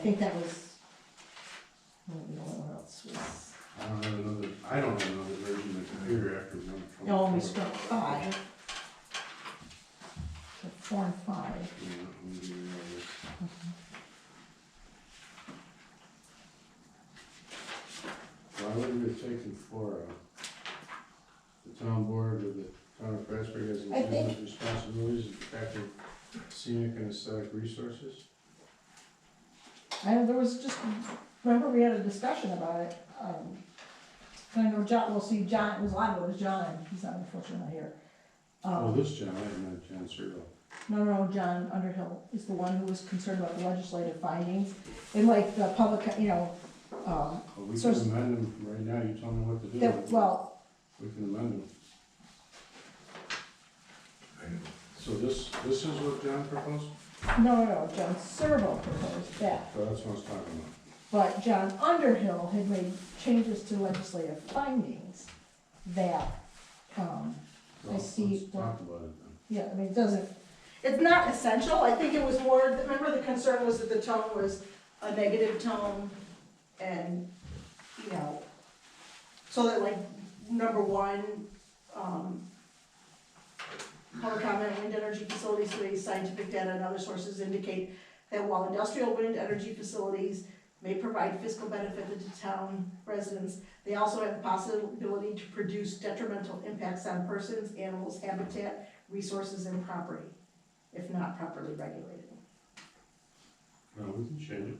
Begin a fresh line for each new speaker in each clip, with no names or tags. I think that was, I don't know what else was,
I don't have another, I don't have another version of the computer after one.
no, we struck five. So Four and five,
Yeah, I'm gonna do another. Why would we have taken four out? The town board or the town of Plattsburgh has
I think-
legitimate responsibilities in protecting scenic and aesthetic resources?
and there was just, remember we had a discussion about it, um, and I know John, well, see, John, it was, I know it was John, he's not unfortunately not here.
Oh,
Um,
this John, I didn't know John Searle.
No, no, John Underhill is the one who was concerned about the legislative findings, and like the public, you know, um,
Well, we
So
can
it's-
amend him right now, you tell me what to do.
that, well,
We can amend him. So this, this is what John proposed?
no, no, no, John Servo proposed that.
So that's what I was talking about.
But John Underhill had made changes to legislative findings that, um, I
Well,
see
Let's talk about it then.
yeah, I mean, it doesn't, it's not essential, I think it was more, remember the concern was that the tone was a negative tone and, you know, so that like, number one, um, public comment, wind energy facilities, studies, scientific data and other sources indicate that while industrial wind energy facilities may provide fiscal benefit to town residents, they also have the possibility to produce detrimental impacts on persons, animals, habitat, resources and property, if not properly regulated.
No, we can change it.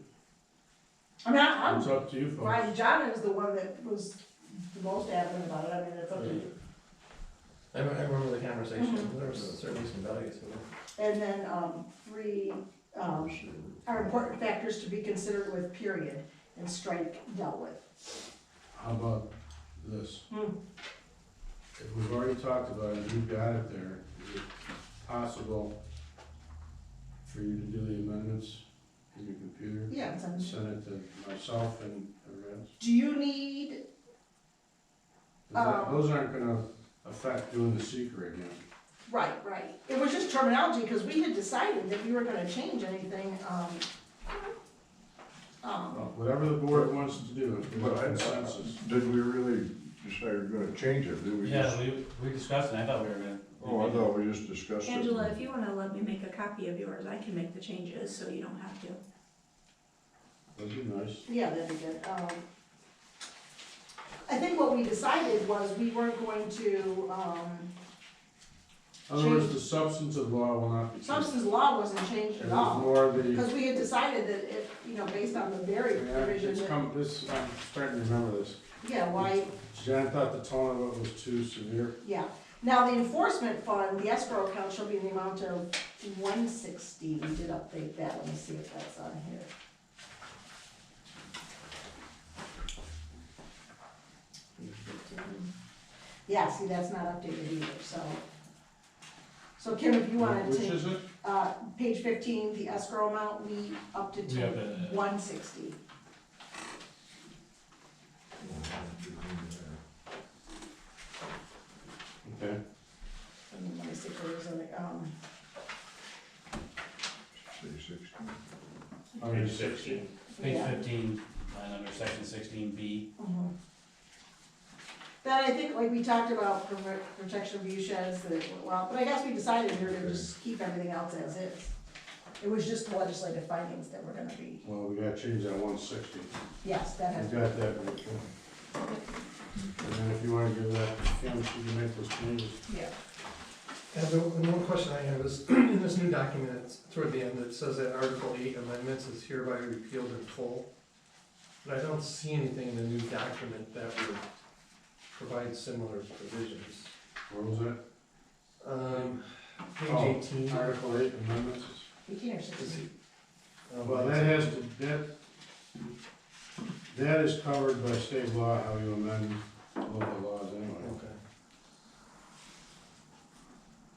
I mean, I- I'm,
It's up to you
Ryan
folks.
John is the one that was the most adamant about it, I mean, it's up to you.
I remember, I remember the conversation,
Mhm.
there was certainly some values in it.
And then, um, three, um, are important factors to be considered with period and strike dealt with.
How about this?
Hmm.
If we've already talked about it, you've got it there, is it possible for you to do the amendments in your computer?
Yeah. it's on-
Send it to myself and everyone else?
Do you need,
'Cause that-
Um.
Those aren't gonna affect doing the seeker again.
right, right, it was just terminology, because we had decided that we were gonna change anything, um, um,
Well, Whatever the board wants to do, if
But
there's
I-
consensus.
Did we really decide we're gonna change it, did we
Yeah,
just?
we, we discussed it, I thought we were gonna.
Oh, I thought we just discussed it.
Angela, if you wanna let me make a copy of yours, I can make the changes, so you don't have to.
That'd be nice.
Yeah, that'd be good. Um, I think what we decided was we weren't going to, um,
Otherwise, the substance of law will not be changed.
substance law wasn't changed
It
at
was
all.
more the,
Because we had decided that if, you know, based on the
yeah,
very provision,
it's
that-
come, this, I'm starting to remember this.
yeah, why,
Jan thought the tone of it was too severe.
yeah. Now, the enforcement fund, the escrow account shall be in the amount of one sixty. We did update that. Let me see if that's on here. Yeah, see, that's not updated either, so. So Kim, if you wanted
Which
to,
is it?
uh, page fifteen, the escrow amount, we upped it
We
to
upped it, uh,
one sixty.
Okay.
Let me see if there was any, um,
Say sixteen.
Under sixty.
Page
yeah.
fifteen, line under section sixteen B,
Mhm. Then I think, like, we talked about prover- protection of view sheds, that, it went well, but I guess we decided we were gonna just keep everything else as is. It was just the legislative findings that were gonna be,
Well, we gotta change that one sixty.
yes, that has,
We got that right there. And then if you wanna give that, Kim, she can make those changes.
yeah.
And the, the one question I have is, in this new document, it's toward the end, it says that Article eight amendments is hereby repealed in full. But I don't see anything in the new document that would provide similar provisions.
What was that?
Um, page
Oh,
eighteen.
Article eight amendments?
Eighteen or
is
sixteen,
it- um,
Well, that has to, that, that is covered by state law, how you amend local laws anyway.
Okay.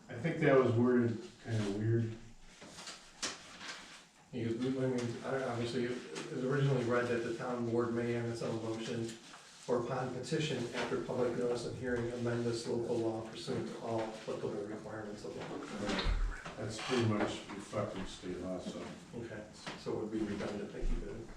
I think that was worded kinda weird.
Because we, I mean, I- obviously, it was originally read that the town board may on its own motion or upon petition after public notice and hearing amend this local law pursuant to all applicable requirements of law.
That's pretty much reflecting state law, so.
Okay, so it would be redundant to keep it in.